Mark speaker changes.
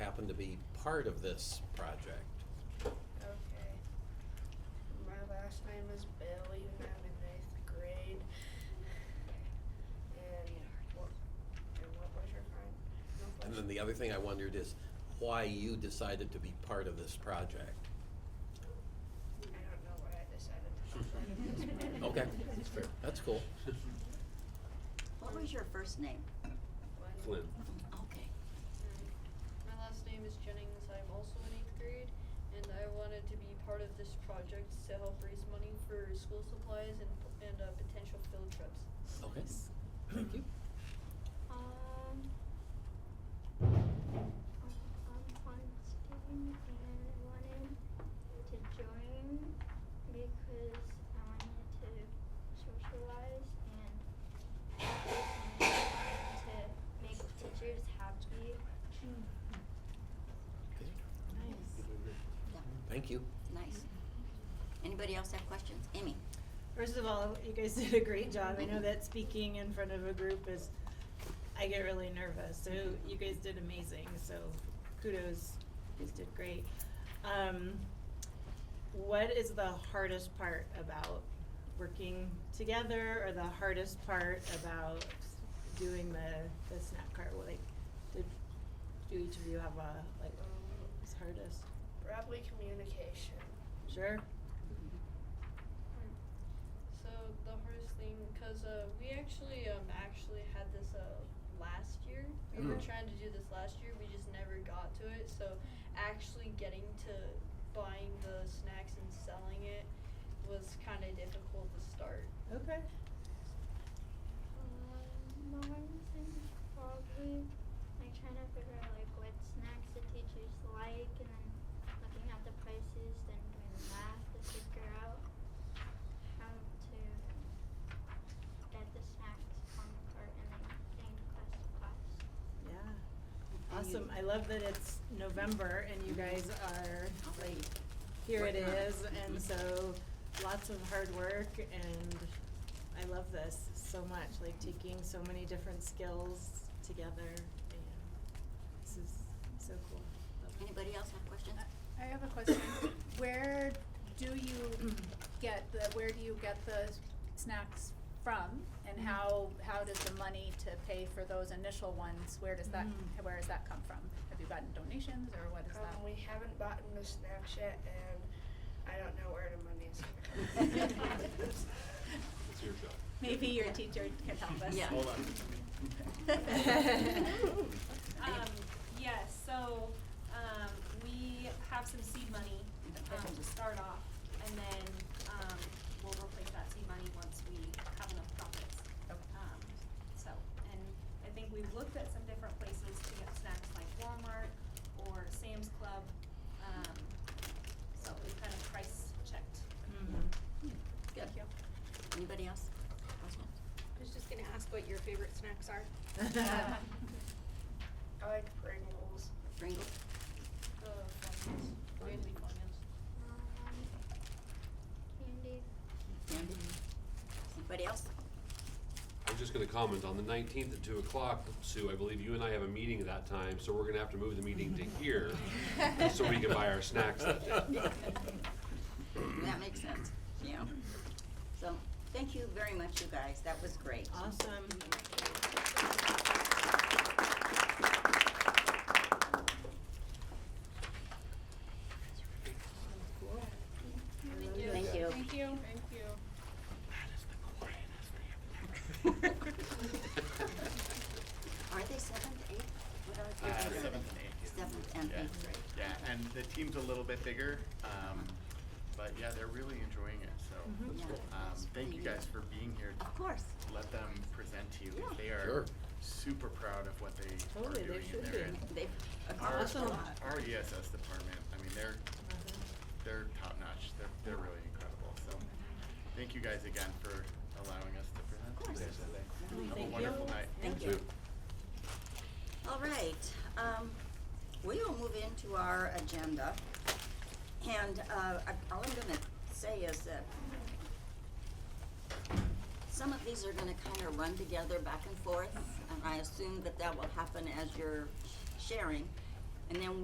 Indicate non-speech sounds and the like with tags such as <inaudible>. Speaker 1: part of this project.
Speaker 2: Okay. My last name is Billy, and I'm in eighth grade. And what, and what was your kind? no
Speaker 1: And then
Speaker 2: question.
Speaker 1: the other thing I wondered is why you decided to be part of this project.
Speaker 2: I don't know what I decided to call that at this point.
Speaker 1: <laughs> Okay, that's fair, that's cool.
Speaker 3: What was your first name?
Speaker 2: When-
Speaker 4: Flynn.
Speaker 3: <clears throat> Okay.
Speaker 5: My last name is Jennings. I'm also in eighth grade, and I wanted to be part of this project to help raise money for school supplies and and uh, potential field trips.
Speaker 1: Okay, thank you.
Speaker 6: Um, I'm Constantine, and I wanted to join because I wanted to socialize and to make teachers happy.
Speaker 1: Okay,
Speaker 3: Nice. Yeah,
Speaker 1: Thank you.
Speaker 3: nice. Anybody else have questions? Amy?
Speaker 7: First of all, you guys did a great job. I know that speaking in front of a group is, I get really nervous. So you guys did amazing. So kudos. You guys did great. Um, what is the hardest part about working together or the hardest part about doing the, the snack cart? Like, did, do each of you have a, like,
Speaker 2: Um,
Speaker 7: what's hardest?
Speaker 2: Probably communication.
Speaker 7: Sure?
Speaker 5: So the hardest thing, cause uh, we actually um actually had this uh last year. We were
Speaker 1: Mhm.
Speaker 5: trying to do this last year. We just never got to it. So actually getting to buying the snacks and selling it was kind of difficult to start.
Speaker 7: Okay.
Speaker 6: Um, my hardest thing is probably like trying to figure out like what snacks the teachers like, and then looking at the prices, then doing the math to figure out how to get the snacks on the cart and then getting to class to class.
Speaker 7: Yeah.
Speaker 3: And you-
Speaker 7: Awesome. I love that it's November and you guys are like, here it
Speaker 3: Working on it.
Speaker 7: is. And
Speaker 3: Mhm.
Speaker 7: so lots of hard work and I love this so much, like taking so many different skills together. and This is so cool. Love it.
Speaker 3: Anybody else have questions?
Speaker 8: I have a question. Where do you get the, where do you get the snacks from? And how, how does the money to pay for those initial ones, where does that,
Speaker 7: Mhm.
Speaker 8: where does that come from? Have you gotten donations or what is that?
Speaker 2: Um, we haven't bought the snacks yet, and I don't know where the money is gonna come from.
Speaker 4: It's your job.
Speaker 8: Maybe your teacher can help us.
Speaker 3: Yeah.
Speaker 4: Hold on.
Speaker 8: <laughs>
Speaker 9: Um, yes, so, um, we have some seed money, um, to start off, and then, um, we'll replace that seed money once we have enough profits. Um, so, and I think we've looked at some different places to get snacks like Walmart or Sam's Club, um, so we've kind of price checked.
Speaker 7: Mhm.
Speaker 3: Good.
Speaker 8: Thank you.
Speaker 3: Anybody else? Questions?
Speaker 10: I was just gonna ask what your favorite snacks are.
Speaker 7: Mm-hmm.
Speaker 2: I like Pringles.
Speaker 3: Pringles?
Speaker 5: The formulas, mainly formulas.
Speaker 6: Um, candy.
Speaker 3: Candy? Anybody else?
Speaker 4: I was just gonna comment, on the nineteenth at two o'clock, Sue, I believe you and I have a meeting at that time, so we're gonna have to move the meeting to here so we can buy our snacks that <laughs>
Speaker 8: <laughs>
Speaker 4: day.
Speaker 3: That makes sense. Yeah. So, thank you very much, you guys. That was great.
Speaker 7: <laughs> Awesome.
Speaker 3: Thank you.
Speaker 8: Thank you. Thank you.
Speaker 7: Mm-hmm.
Speaker 3: Are they seventh, eighth? What are
Speaker 11: Uh,
Speaker 3: they?
Speaker 11: seventh and eighth.
Speaker 3: Seventh and
Speaker 11: Yeah.
Speaker 3: eighth grade.
Speaker 11: Yeah, and the team's a little bit bigger, um, but yeah, they're really enjoying it, so.
Speaker 7: Mm-hmm.
Speaker 3: That's cool.
Speaker 11: Um, thank you guys for being here.
Speaker 3: Of course.
Speaker 11: Let them present to you.
Speaker 3: Yeah.
Speaker 11: They
Speaker 1: Sure.
Speaker 11: are super proud of what they are
Speaker 7: Totally, they
Speaker 11: doing in
Speaker 7: should
Speaker 11: there.
Speaker 7: be.
Speaker 3: They've
Speaker 11: Our,
Speaker 7: That's
Speaker 3: accomplished a
Speaker 7: Awesome.
Speaker 3: lot.
Speaker 11: our ESS department, I mean, they're, they're top notch. They're, they're really incredible, so. Thank you guys again for allowing us to present.
Speaker 3: Of course.
Speaker 11: today.
Speaker 3: Thank
Speaker 11: Have a
Speaker 3: you.
Speaker 11: wonderful night.
Speaker 3: Thank you. All right, um, we will move into our agenda. And, uh, I- all I'm gonna say is that some of these are gonna kinda run together back and forth, and I assume that that will happen as you're sharing. And then